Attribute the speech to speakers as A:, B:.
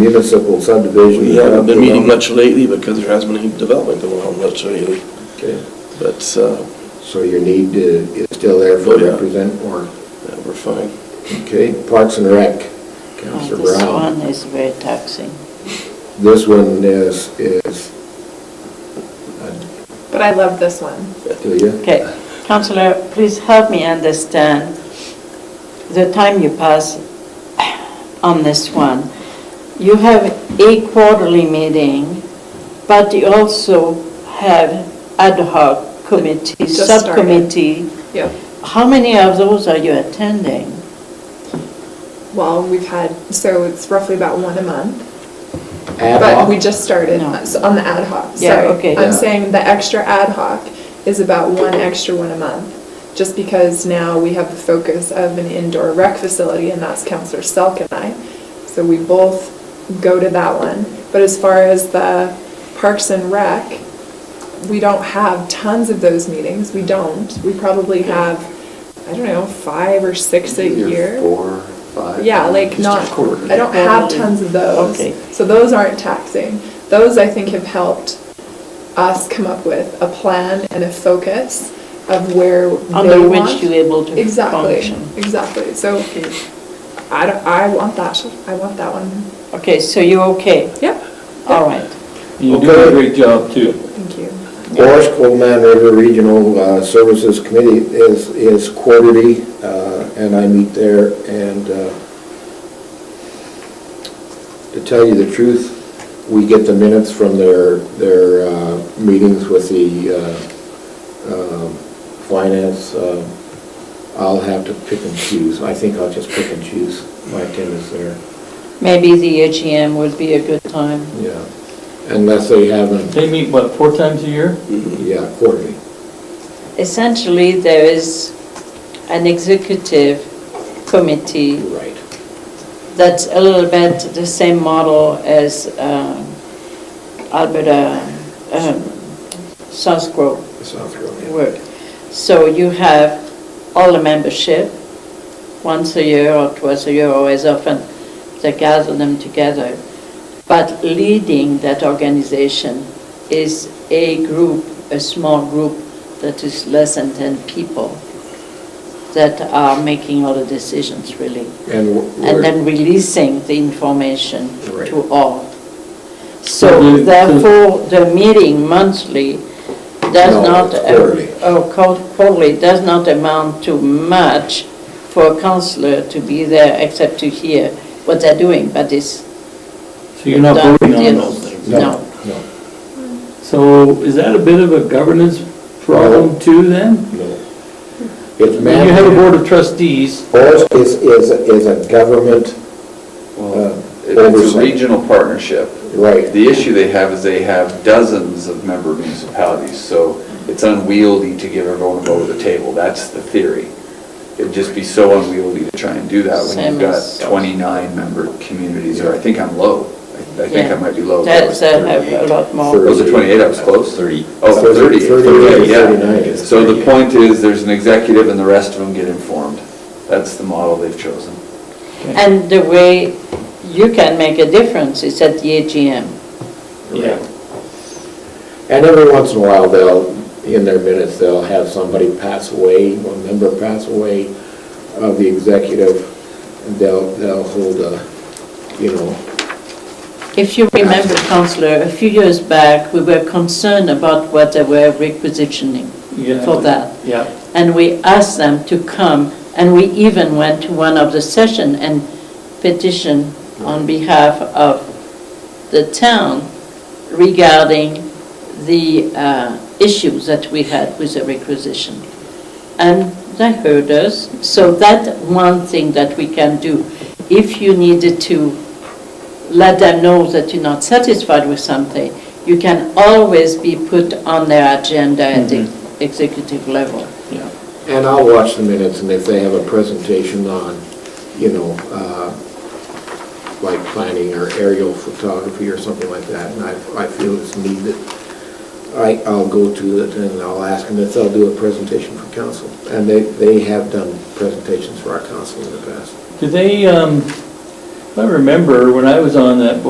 A: municipal subdivision.
B: We haven't been meeting much lately because there hasn't been any development going on much lately,
A: Okay.
B: but uh,
A: So your need uh, is still there for
B: Oh, yeah.
A: represent or,
B: yeah, we're fine.
A: okay, Parks and Rec,
C: Oh,
A: Counselor
C: This
A: Brown.
C: one is very taxing.
A: This one is, is, uh,
D: But I love this one.
A: do you?
C: Okay, Counselor, please help me understand the time you pass on this one. You have a quarterly meeting, but you also have ad hoc committee,
D: Just started.
C: subcommittee.
D: Yeah.
C: How many of those are you attending?
D: Well, we've had, so it's roughly about one a month.
A: Ad
D: But
A: hoc?
D: we just started
C: No.
D: s- on the ad hoc,
C: Yeah,
D: sorry.
C: okay.
A: Yeah.
D: I'm saying the extra ad hoc is about one extra one a month. Just because now we have the focus of an indoor rec facility and that's Counselor Selk and I. So we both go to that one. But as far as the Parks and Rec, we don't have tons of those meetings. We don't. We probably have, I don't know, five or six a
A: Either
D: year.
A: Four, five.
D: Yeah, like
A: just a
D: not,
A: quarter.
D: I don't have
C: Quarterly.
D: tons of those.
C: Okay.
D: So those aren't taxing. Those, I think, have helped us come up with a plan and a focus of where they want.
C: Under which you're able to
D: Exactly,
C: function.
D: exactly. So
C: Okay.
D: I don't, I want that, I want that one.
C: Okay, so you're okay?
D: Yep,
C: All right.
E: You do
A: Okay.
E: a great job too.
D: thank you.
A: Morris Cold Man River Regional uh, Services Committee is, is quarterly, uh, and I meet there, and uh, to tell you the truth, we get the minutes from their, their uh, meetings with the uh, um, finance. uh, I'll have to pick and choose, I think I'll just pick and choose my attendance there,
C: Maybe the AGM would be a good time.
A: yeah, unless they haven't,
E: They meet, what, four times a year?
A: yeah, quarterly.
C: Essentially, there is an executive committee
A: Right.
C: that's a little bit the same model as um, Alberta, um, South Grove
A: South Carolina.
C: work. So you have all the membership, once a year or twice a year or as often, they gather them together. But leading that organization is a group, a small group that is less than 10 people that are making all the decisions really
A: And we're-
C: and then releasing the information
A: Right.
C: to all.
E: So
C: So
E: the-
C: therefore, the meeting monthly does
A: No,
C: not.
A: it's quarterly.
C: Oh, quar- quarterly does not amount to much for a counselor to be there except to hear what they're doing, but it's.
E: So you're not
C: done,
E: voting
C: you
E: on
C: know.
E: those things?
C: No.
A: No,
E: So is that a bit of a governance problem too then?
A: no. It's
E: I mean, You have a
A: mandated.
E: board of trustees,
A: Ours is, is, is a government uh,
F: Well, It's a
A: oversight.
F: regional partnership.
A: Right,
F: The issue they have is they have dozens of member municipalities, so it's unwieldy to give everyone a vote at the table. That's the theory. It'd just be so unwieldy to try and do that when
C: Same
F: you've got
C: as-
F: 29 member communities, or I think I'm low. I- I think I
C: yeah.
F: might be low.
C: That's, uh, have a lot more.
F: Those are 28, I was close.
G: 30.
F: Oh,
A: Thirty-
F: 30.
A: thirty,
F: yeah.
A: 39.
F: So the point is, there's an executive and the rest of them get informed. That's the model they've chosen.
C: And the way you can make a difference is at the AGM.
E: yeah.
A: and every once in a while, they'll, in their minutes, they'll have somebody pass away, one member pass away of the executive, and they'll, they'll hold a, you know,
C: If you remember, Counselor, a few years back, we were concerned about what they were requisitioning
E: Yeah.
C: for that.
E: Yeah,
C: And we asked them to come, and we even went to one of the session and petitioned on behalf of the town regarding the uh, issues that we had with the requisition. And they heard us, so that one thing that we can do. If you needed to let them know that you're not satisfied with something, you can always be put on their agenda at the executive level.
E: yeah.
A: And I'll watch the minutes, and if they have a presentation on, you know, uh, like planning or aerial photography or something like that, and I, I feel it's needed, I, I'll go to it and I'll ask them if they'll do a presentation for council. And they, they have done presentations for our council in the past.
E: Do they, um, I remember when I was on that board